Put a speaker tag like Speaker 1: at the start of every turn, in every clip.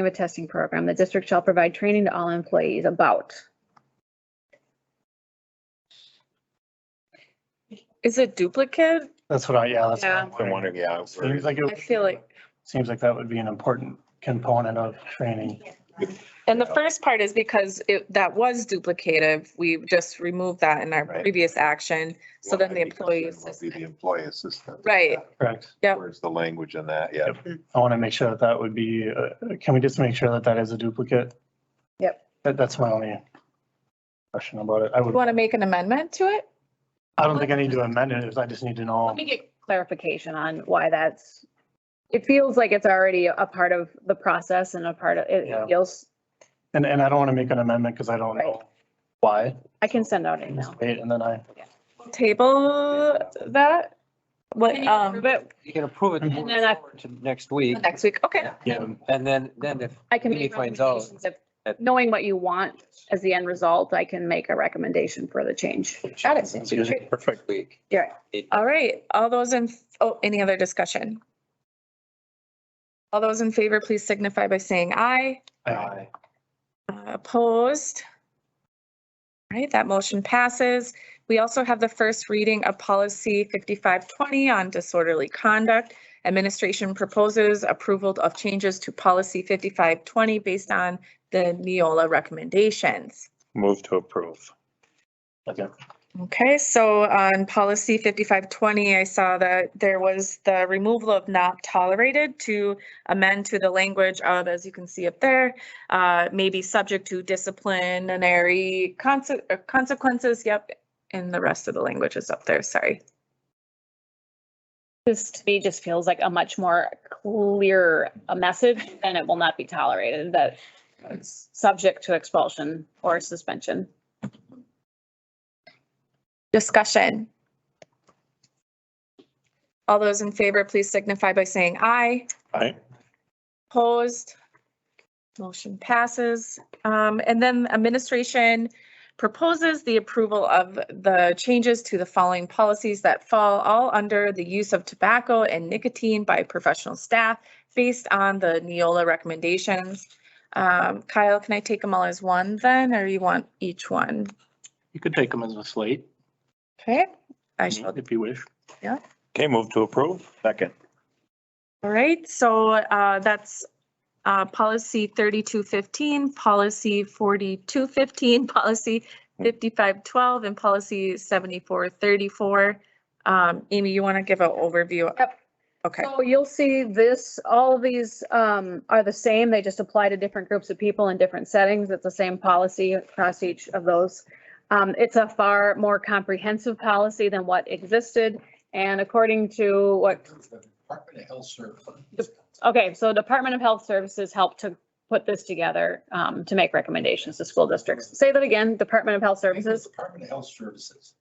Speaker 1: of a testing program. The district shall provide training to all employees about.
Speaker 2: Is it duplicate?
Speaker 3: That's what I, yeah, that's. what I'm
Speaker 4: I'm wondering, yeah. where-
Speaker 3: Seems like,
Speaker 2: I feel
Speaker 3: it
Speaker 2: like,
Speaker 3: seems like that would be an important component of training.
Speaker 2: and the first part is because it, that was duplicative. We just removed that in our
Speaker 4: Right.
Speaker 2: previous action. So
Speaker 4: Well,
Speaker 2: then the
Speaker 4: I'd be
Speaker 2: employee
Speaker 4: concerned would Be the
Speaker 2: assistant.
Speaker 4: employee assistant.
Speaker 2: Right.
Speaker 3: Correct.
Speaker 2: Yep.
Speaker 4: Where's the language in that? Yeah.
Speaker 3: I want to make sure that that would be, uh, can we just make sure that that is a duplicate?
Speaker 1: Yep.
Speaker 3: That, that's my only question about it. I
Speaker 2: You
Speaker 3: would,
Speaker 2: want to make an amendment to it?
Speaker 3: I don't think I need to amend it. I just need to know.
Speaker 1: Let me get clarification on why that's, it feels like it's already a part of the process and a part of,
Speaker 3: Yeah.
Speaker 1: it feels,
Speaker 3: And, and I don't want to make an amendment because I don't know why.
Speaker 1: I can send out an
Speaker 3: Just
Speaker 1: email.
Speaker 3: Wait, and then I,
Speaker 2: Table that? What, um,
Speaker 1: But
Speaker 5: You can approve it
Speaker 3: And
Speaker 5: moving
Speaker 1: then I-
Speaker 5: forward to next week.
Speaker 2: next week? Okay.
Speaker 3: yeah,
Speaker 5: And then, then if,
Speaker 1: I can
Speaker 5: Maybe
Speaker 1: make
Speaker 5: find out.
Speaker 1: recommendations of, knowing what you want as the end result, I can make a recommendation for the change.
Speaker 2: Got it.
Speaker 5: it's usually perfect week.
Speaker 1: Yeah.
Speaker 5: It-
Speaker 2: All right. All those in, oh, any other discussion? All those in favor, please signify by saying aye.
Speaker 3: I,
Speaker 2: Uh, Opposed? All right, that motion passes. We also have the first reading of policy 5520 on disorderly conduct. Administration proposes approval of changes to policy 5520 based on the Neola recommendations.
Speaker 4: Move to approve.
Speaker 3: okay.
Speaker 2: Okay, so on policy 5520, I saw that there was the removal of not tolerated to amend to the language of, as you can see up there, uh, maybe subject to disciplinary conse- uh, consequences, yep, and the rest of the language is up there, sorry.
Speaker 1: This to me just feels like a much more clear a message and it will not be tolerated that it's subject to expulsion or suspension.
Speaker 2: Discussion. All those in favor, please signify by saying aye.
Speaker 4: Aye.
Speaker 2: Opposed? Motion passes. Um, And then administration proposes the approval of the changes to the following policies that fall all under the use of tobacco and nicotine by professional staff based on the Neola recommendations. Um, Kyle, can I take them all as one then, or you want each one?
Speaker 3: You could take them as a slate
Speaker 2: Okay, I shall
Speaker 3: you wish.
Speaker 4: Okay, move to approve. Second.
Speaker 2: All right, so uh, that's uh, policy 3215, policy 4215, policy 5512, and policy 7434. Um, Amy, you want to give an overview?
Speaker 1: Yep.
Speaker 2: Okay,
Speaker 1: So you'll see this, all these um, are the same. They just apply to different groups of people in different settings. It's the same policy across each of those. Um, It's a far more comprehensive policy than what existed. And according to what
Speaker 6: Department of Health Services.
Speaker 1: The- Okay, so Department of Health Services helped to put this together um, to make recommendations to school districts. Say that again, Department of Health Services.
Speaker 6: Department of Health Services.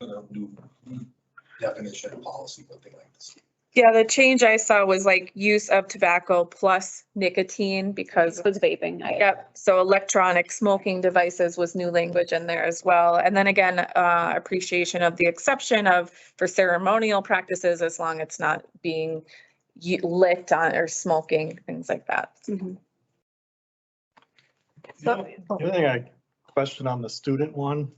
Speaker 6: For the new definition of policy, something like this.
Speaker 2: yeah, the change I saw was like use of tobacco plus nicotine because,
Speaker 1: It was vaping. I-
Speaker 2: yep, so electronic smoking devices was new language in there as well. And then again, uh, appreciation of the exception of for ceremonial practices as long it's not being y- lit on or smoking, things like that.
Speaker 1: Mhm.
Speaker 7: The only the only thing I question on the student one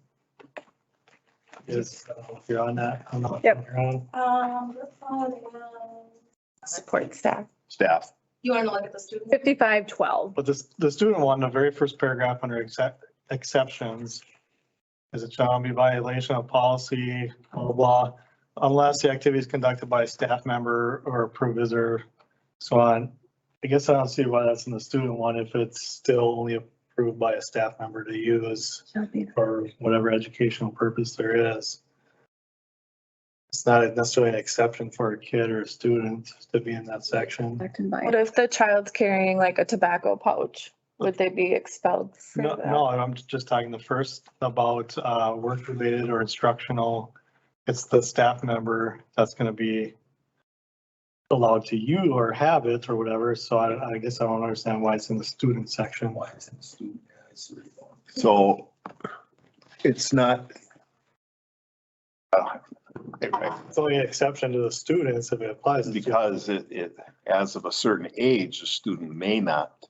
Speaker 7: is, I don't know if you're on that, I don't know if
Speaker 2: Yep.
Speaker 7: you're on.
Speaker 2: Support staff.
Speaker 4: Staff.
Speaker 2: You want to look at the student?
Speaker 1: 5512.
Speaker 7: But this, the student one, the very first paragraph under except, exceptions is it shall not be violation of policy, blah, blah, blah, unless the activity is conducted by a staff member or approved visitor. So on, I guess I don't see why that's in the student one if it's still only approved by a staff member to use. for whatever educational purpose there is. It's not necessarily an exception for a kid or a student to be in that section.
Speaker 2: What if the child's carrying like a tobacco pouch? Would they be expelled for
Speaker 7: No,
Speaker 2: that?
Speaker 7: no, I'm just talking the first about uh, work-related or instructional. It's the staff member that's gonna be allowed to you or have it or whatever, so I, I guess I don't understand why it's in the student section.
Speaker 6: Why is it student? Yeah, it's really long.
Speaker 4: So it's not. Uh, it- it-
Speaker 7: It's only an exception to the students if it applies. to-
Speaker 4: Because it, it, as of a certain age, a student may not